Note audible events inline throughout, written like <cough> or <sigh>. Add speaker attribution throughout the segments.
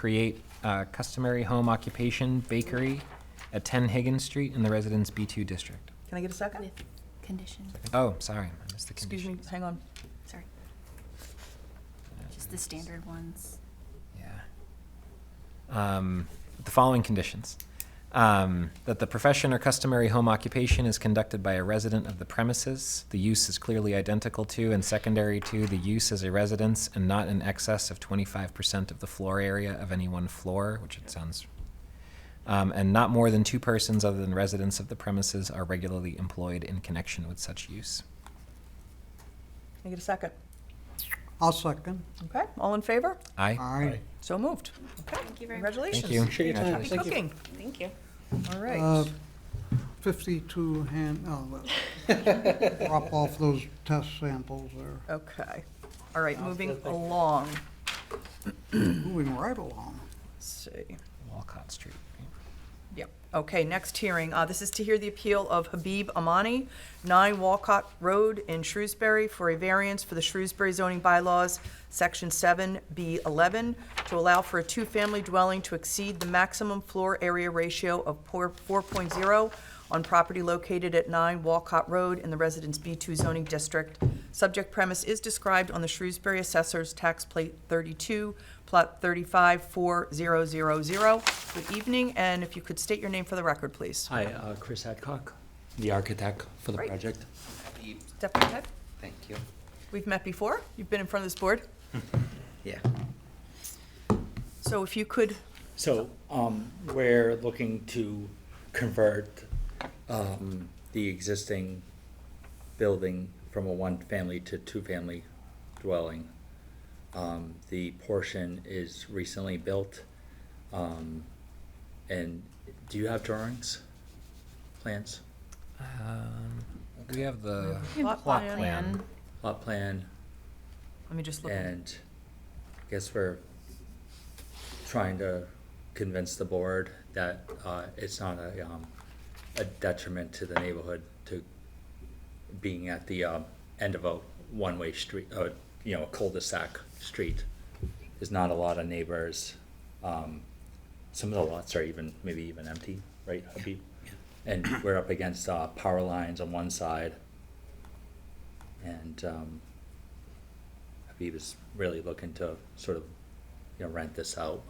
Speaker 1: create a customary home occupation bakery at 10 Higgins Street in the Residence B2 District.
Speaker 2: Can I get a second?
Speaker 3: With conditions,
Speaker 1: Oh, sorry, I missed the
Speaker 2: Excuse me,
Speaker 1: conditions.
Speaker 2: hang on.
Speaker 3: sorry, just the standard ones.
Speaker 1: Yeah. Um, with The following conditions. Um, That the profession or customary home occupation is conducted by a resident of the premises. The use is clearly identical to and secondary to the use as a residence and not in excess of 25% of the floor area of any one floor, which it sounds, um, and not more than two persons other than residents of the premises are regularly employed in connection with such use.
Speaker 2: Can I get a second?
Speaker 4: I'll second.
Speaker 2: Okay, all in favor?
Speaker 1: Aye?
Speaker 4: Aye.
Speaker 2: So moved. Okay,
Speaker 3: Thank you very much.
Speaker 2: congratulations.
Speaker 1: you.
Speaker 5: Appreciate your time.
Speaker 2: Happy
Speaker 5: Thank you.
Speaker 2: cooking.
Speaker 3: Thank you.
Speaker 2: All
Speaker 4: Uh,
Speaker 2: right.
Speaker 4: Fifty-two hand, oh, well, drop off those test samples there.
Speaker 2: Okay. All right, moving along.
Speaker 4: Moving right along.
Speaker 2: Let's see.
Speaker 1: Walcott Street. right?
Speaker 2: Yep. Okay, next hearing. Uh, This is to hear the appeal of Habib Amani, 9 Walcott Road in Shrewsbury, for a variance for the Shrewsbury zoning bylaws, Section 7B11, to allow for a two-family dwelling to exceed the maximum floor area ratio of four- 4.0 on property located at 9 Walcott Road in the Residence B2 zoning district. Subject premise is described on the Shrewsbury Assessor's Tax Plate 32, Plot 354000. Good evening, and if you could state your name for the record, please.
Speaker 5: Hi, uh, Chris Hadcock, the architect for the
Speaker 2: Great.
Speaker 5: project.
Speaker 2: Step right ahead.
Speaker 6: Thank you.
Speaker 2: We've met before. You've been in front of this board.
Speaker 6: Yeah.
Speaker 2: So if you could,
Speaker 6: So, um, we're looking to convert, um, the existing building from a one-family to two-family dwelling. Um, the portion is recently built, um, and do you have drawings, plans,
Speaker 1: Um, We have the
Speaker 2: Lot
Speaker 1: plot
Speaker 2: plan.
Speaker 1: plan.
Speaker 6: lot plan?
Speaker 2: let me just look.
Speaker 6: And I guess we're trying to convince the board that uh, it's not a, um, a detriment to the neighborhood to being at the um, end of a one-way street, uh, you know, a cul-de-sac street. There's not a lot of neighbors. Um, Some of the lots are even, maybe even empty, right, Habib? And we're up against uh, power lines on one side. And um, Habib is really looking to sort of, you know, rent this out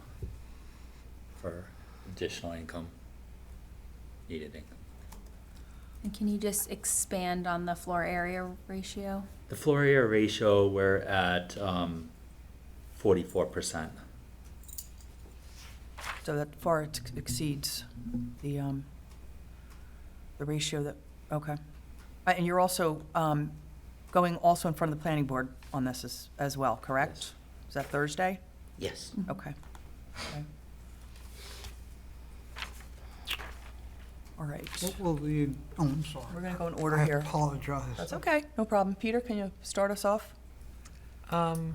Speaker 6: for additional income, needed income.
Speaker 3: And can you just expand on the floor area ratio?
Speaker 6: The floor area ratio, we're at um, forty-four percent.
Speaker 2: So that far ex- exceeds the, um, the ratio that, okay. Uh, And you're also, um, going also in front of the planning board on this as, as well, correct? Is that Thursday?
Speaker 6: Yes.
Speaker 2: Okay. Okay. All right.
Speaker 4: What will the, oh, I'm sorry.
Speaker 2: We're gonna go in order here.
Speaker 4: I apologize.
Speaker 2: That's okay, no problem. Peter, can you start us off?
Speaker 1: Um,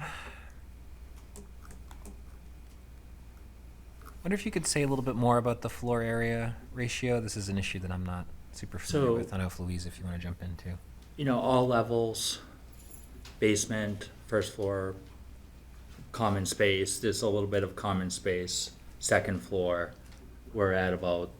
Speaker 1: wonder if you could say a little bit more about the floor area ratio. This is an issue that I'm not super familiar
Speaker 6: So-
Speaker 1: with. I don't know if Louise, if you want to jump in too.
Speaker 6: You know, all levels, basement, first floor, common space, there's a little bit of common space, second floor, we're at about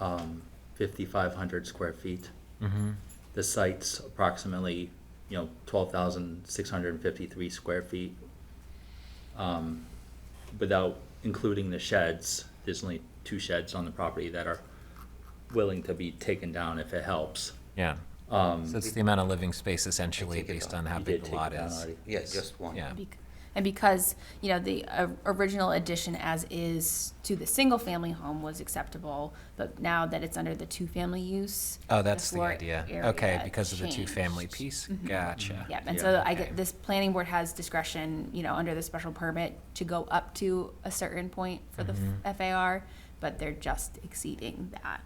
Speaker 6: um, fifty-five hundred square feet.
Speaker 1: Mm-hmm.
Speaker 6: The site's approximately, you know, twelve thousand six hundred and fifty-three square feet. Um, Without including the sheds, there's only two sheds on the property that are willing to be taken down if it helps.
Speaker 1: Yeah.
Speaker 6: Um,
Speaker 1: So it's the amount of living space essentially
Speaker 7: take it
Speaker 1: based on
Speaker 7: down.
Speaker 1: how
Speaker 6: you did
Speaker 1: big the
Speaker 6: take it
Speaker 1: lot
Speaker 6: down
Speaker 1: is.
Speaker 6: already.
Speaker 7: Yeah, just one.
Speaker 1: Yeah.
Speaker 3: Bec- And because, you know, the uh, original addition as is to the single-family home was acceptable, but now that it's under the two-family use.
Speaker 1: Oh,
Speaker 3: the
Speaker 1: that's the
Speaker 3: floor
Speaker 1: idea.
Speaker 3: area
Speaker 1: Okay, because of the
Speaker 3: changed. Mm-hmm.
Speaker 1: two-family piece. Gotcha.
Speaker 3: Yep, and
Speaker 6: Yeah,
Speaker 3: so I
Speaker 1: okay.
Speaker 3: get, this planning board has discretion, you know, under the special permit to go up to a certain point for the f- FAR, but they're just exceeding that.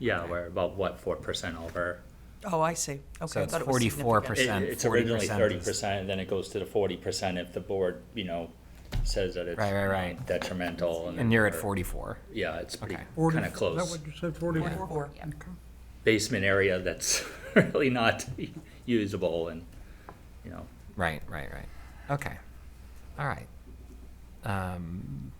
Speaker 6: Yeah, we're about, what, four percent over?
Speaker 2: Oh, I see.
Speaker 1: So
Speaker 2: Okay, I
Speaker 1: it's
Speaker 2: thought it was significant.
Speaker 1: 44%.
Speaker 6: It-
Speaker 1: Percent,
Speaker 6: It's originally
Speaker 1: 40%
Speaker 6: thirty
Speaker 1: is-
Speaker 6: percent, and then it goes to the forty percent if the board, you know, says that it's
Speaker 1: Right, right, right.
Speaker 6: detrimental.
Speaker 1: And you're at
Speaker 6: we're-
Speaker 1: forty-four.
Speaker 6: Yeah, it's pretty,
Speaker 1: Okay.
Speaker 4: Forty-
Speaker 6: kinda close.
Speaker 4: Is that what you said, forty-four?
Speaker 2: Four.
Speaker 3: Yep.
Speaker 6: basement area that's <laughs> really not <laughs> usable and, you know,
Speaker 1: Right, right, right. Okay. All right. um,